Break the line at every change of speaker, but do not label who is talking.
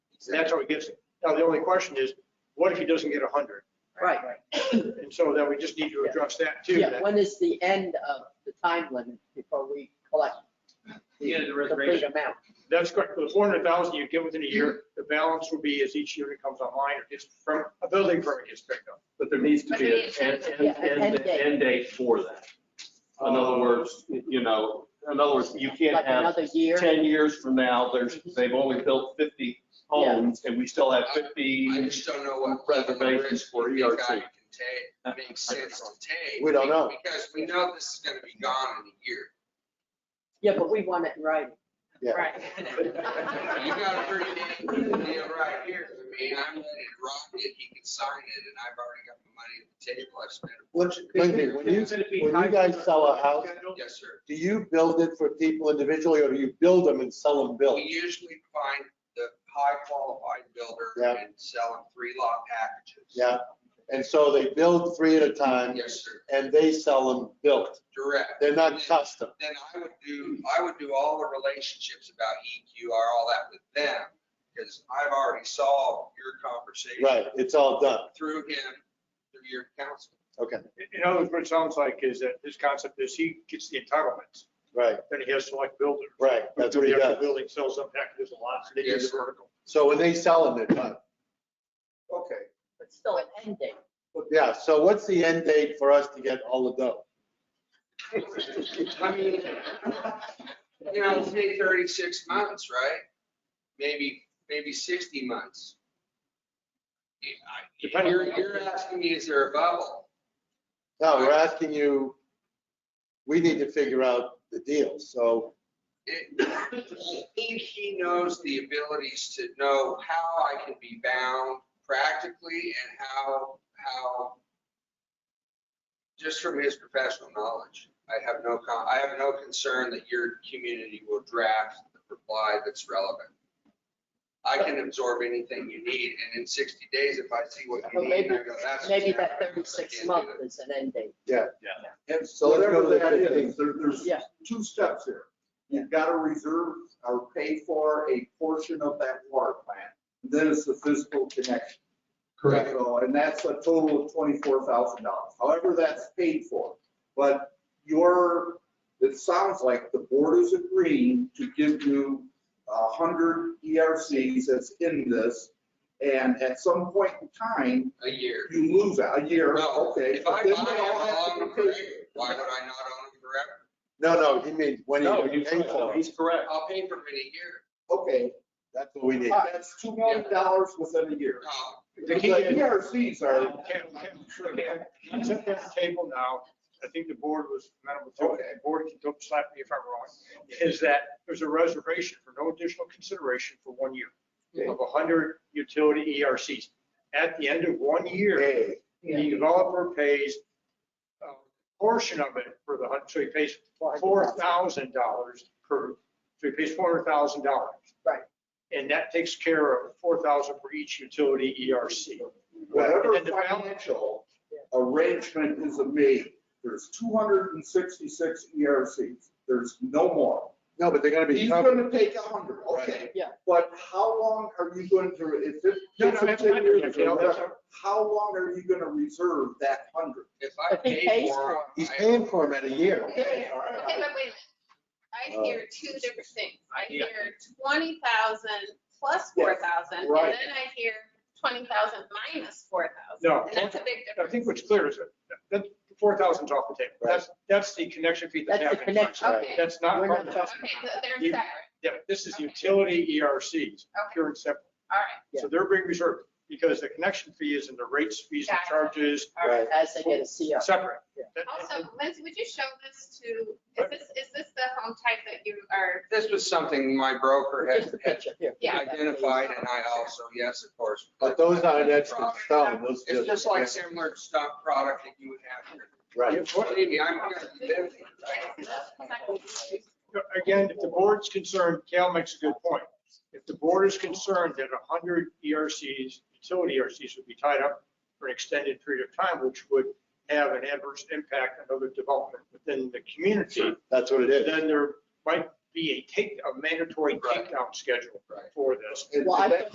And that's how it gets, now the only question is, what if he doesn't get 100?
Right.
And so then we just need to address that too.
Yeah, when is the end of the time limit before we collect?
The end of the
Complete
reservation.
amount.
That's correct, the 400,000 you get within a year, the balance will be as each unit comes online or just from, a building permit gets picked up.
But there needs to
But
be
there
an
needs to
end,
be-
Yeah,
end,
an end
end-
date.
end date for that. In other
Oh.
words, you know, in other words, you can't
Like
have
another year?
ten years from now, there's,
Mm-hmm.
they've only built fifty homes and we still have fifty.
I just don't know what revenue
Reservations
risk
for
E
we think
ERC.
I can take, makes sense to take.
We don't know.
Because we know this is gonna be gone in a year.
Yeah, but we want it in writing.
Yeah.
You got a pretty damn good deal right here. I mean, I'm ready to rock it. He can sign it and I've already got the money at the table. I've spent it.
Look, Lindsay, when you, when you guys sell a house,
Yes, sir.
do you build it for people individually or do you build them and sell them built?
We usually find the high qualified builder
Yeah.
and sell them three lot packages.
Yeah, and so they build three at a time
Yes, sir.
and they sell them built.
Direct.
They're
And
not
then-
custom.
then I would do, I would do all the relationships about EQR, all that with them, because I've already solved your conversation.
Right, it's all done.
Through him, through your counsel.
Okay,
In other words, what it sounds like is that his concept is he gets the entitlements,
right,
then he has to like build it.
right. That's what he
After the
does.
Building sells up, heck, there's a lot, so they do
Yes,
the
sir.
vertical.
So when they sell them, they're done. Okay.
But still an end date.
Yeah, so what's the end date for us to get all the dough?
I mean, you know, it'll take thirty-six months, right? Maybe, maybe sixty months. Yeah, I-
Depending-
You're, you're asking me, is there a bubble?
No, we're asking you, we need to figure out the deal, so,
It- I think he knows the abilities to know how I can be bound practically and how, how, just from his professional knowledge, I have no, con- I have no concern that your community will draft the reply that's relevant. I can absorb anything you need, and in 60 days, if I see what
Well,
you need,
maybe-
I go, that's. what's
Maybe that
happening, I can't
36
do
month
that."
is an end date.
And
So let's go to
whatever
the
that
15.
is, there, there's
Yeah.
two steps here. You've got to reserve or pay for a portion of that water plant. Then it's the physical connection.
Correct.
So, and that's a total of twenty-four thousand dollars. However, that's paid for. But your, it sounds like the board is agreeing to give you a hundred ERCs that's in this. And at some point in time,
A year.
you lose a year,
No,
okay.
if I buy
then
them,
they all have
I'll
to
own them
be
forever.
paid.
Why would I not own them forever?
no, no, he means when
No,
you
he's
pay for
correct.
it.
He's correct.
I'll pay for it in a year.
Okay,
That's what we need.
That's two million dollars within a year.
No,
The
The
key is-
ERCs are,
Can- can- sure, can. Let's set that table now, I think the board was amenable to it, the board can don't slap me if I'm wrong, is that there's a reservation for no additional consideration for one year of 100 utility ERCs. At the end of one year,
Hey,
the developer pays a portion of it for the, hun- so he pays $4,000 per, so he pays $400,000.
Right.
And that takes care of 4,000 for each utility E ERC.
whatever
And the balance-
financial arrangement is made, there's two hundred and sixty-six ERCs. There's no more.
no, but they're gonna be
He's
covered.
gonna take a hundred, okay.
Yeah.
But how long are you going to, if it,
No, no,
it's a
that's
ten
fine.
years
Yeah,
or
that's
whatever, how long are you gonna reserve that hundred?
If I
If he
pay
pays
for
for
them.
He's
I-
paying for them at a year.
Okay, all right.
Okay, but wait a minute.
Uh,
I hear two different things. I hear twenty thousand plus four thousand, and
right.
then I hear twenty thousand minus four thousand.
No.
And that's a big
I
difference.
think what's clear is that, that four thousand's off the table. That's, that's the connection fee that's
That's the
happening.
connection.
Okay, okay,
That's not,
We're not-
that's-
so they're
You-
separate.
yeah, this is utility ERCs,
Okay,
pure and simple.
all right,
Yeah.
So they're being reserved because the connection fee is in the rates, fees and
Gotcha.
charges
all right.
Right.
As they get a CR.
separate.
Yeah.
That-
Also, Lindsay, would you show this to, is this, is this the home type that you are,
This was something my broker
Just
had
the
had
picture here.
Yeah.
identified and I also, yes, of course.
But those aren't etched in stone, those
It's just like
just,
similar stock product that you would have here.
right.
Believe me, I'm gonna be busy, right?
Again, if the board's concerned, Cal makes a good point. If the board is concerned that 100 ERCs, utility ERCs would be tied up for an extended period of time, which would have an adverse impact on other development within the community,
That's what it is.
then there might be a take, a mandatory takedown schedule
Right.
for this.
Well, I think